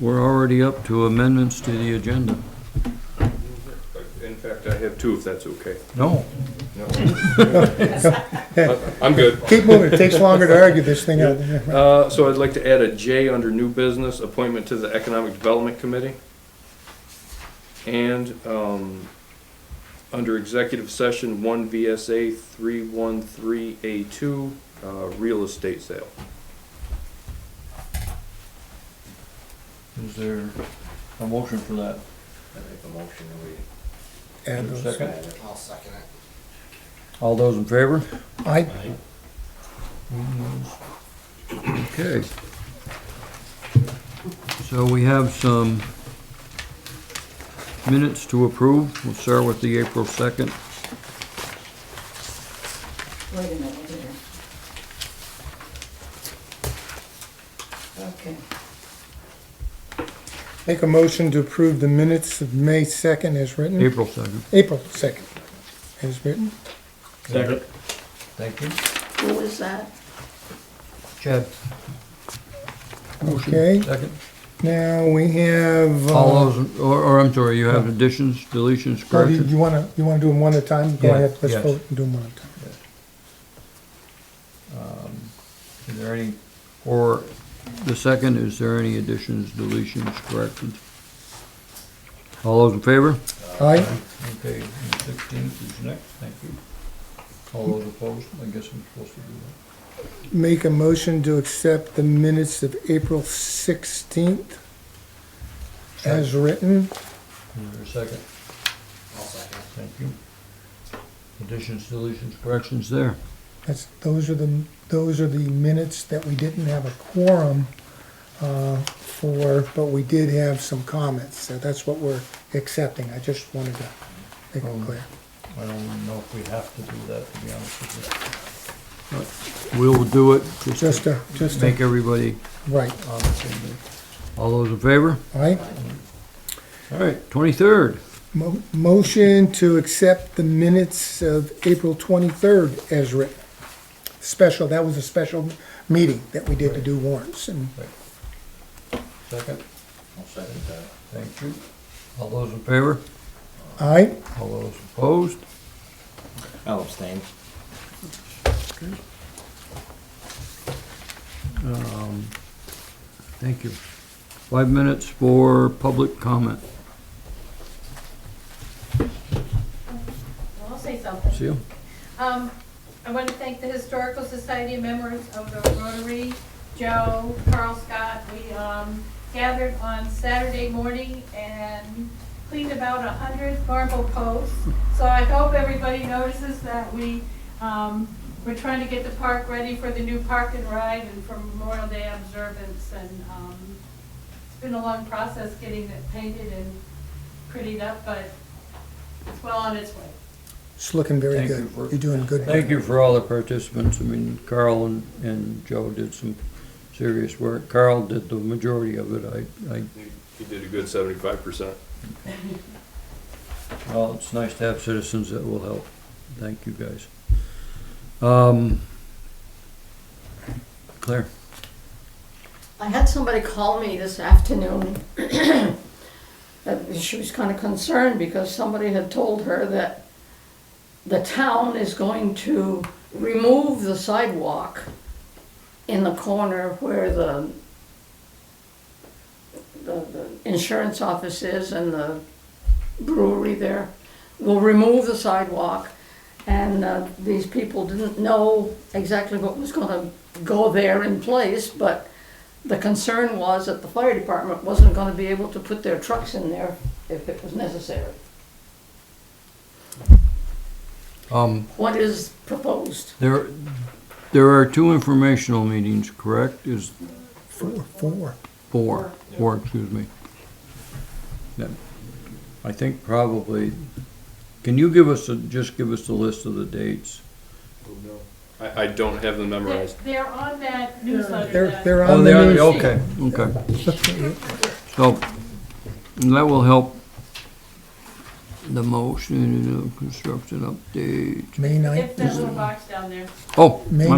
We're already up to amendments to the agenda. In fact, I have two, if that's okay. No. I'm good. Keep moving, it takes longer to argue this thing out. Uh, so I'd like to add a J under new business, appointment to the Economic Development Committee. And, um, under executive session, one VSA three one three A two, uh, real estate sale. Is there a motion for that? I make a motion and And uh, Is there a those- we. Second? I'll second it. All those in favor? I, Okay. So we have some minutes to approve. We'll start with the April 2nd. Wait a minute here. Okay, make a motion to approve the minutes of May second as written, April 2nd. April second as written. Second. Thank you. who was that? Chad, Okay, second. now we have. uh, All those, or, or I'm sorry, you have additions, deletions, Oh, do you- corrections? you wanna, you wanna do them one at a time? Go Yeah, ahead, let's yes. vote and do them one at a time. Um, Is there any, Or the second, is there any additions, deletions, corrections? All those in favor? Aye, okay, sixteenth is next, thank you. All those opposed, I guess I'm supposed to do that. make a motion to accept the minutes of April sixteenth as written. Is there a second? I'll second it. Thank you. Additions, deletions, Corrections there. That's, those are the, those are the minutes that we didn't have a quorum uh, for, but we did have some comments, so that's what we're accepting. I just wanted to make it clear. Oh. I don't know if we have to do that, to be honest with We'll do it, just Just a, just make a, everybody right, on the same page. All those in favor? all right? All right, twenty-third. Mo- Motion to accept the minutes of April 23rd as written. Special, that was a special meeting that we did to do warrants, and you. Second, I'll second that. thank you. All those, Those in favor? aye? all those, Opposed? I'll abstain. Um, Thank you. Five minutes for public comment. Well, I'll say something. See you. Um, I want to thank the Historical Society and members of the Rotary, Joe, Carl Scott. We, um, gathered on Saturday morning and cleaned about a hundred marble posts. So I hope everybody notices that we, um, we're trying to get the park ready for the new park and ride and for Memorial Day observance and, um, it's been a long process getting it painted and prettied up, but it's well on its way. It's looking very Thank good. you for- You're doing good. Thank you for all the participants. I mean, Carl and, and Joe did some serious work. Carl did the majority of it. I, I, You you did a good seventy-five percent. well, it's nice to have citizens that will help. Thank you, guys. Um, Claire? I had somebody call me this afternoon. That She was kind of concerned because somebody had told her that the town is going to remove the sidewalk in the corner where the, the, the insurance office is and the brewery there. Will remove the sidewalk and uh, these people didn't know exactly what was gonna go there in place, but the concern was that the fire department wasn't gonna be able to put their trucks in there if it was necessary. Um, What is proposed? there, there are two informational meetings, correct? Is Four, four. Four, four, excuse me. Yeah. I think probably, can you give us, a- just give us a list of the dates? I, I don't have them They're, memorized. they're on that newsletter They're, that. they're Oh, on they the are, Oh. news. okay, okay. So, and that will help the motion, you know, construction update. May It's ninth. that little box down there. Oh, May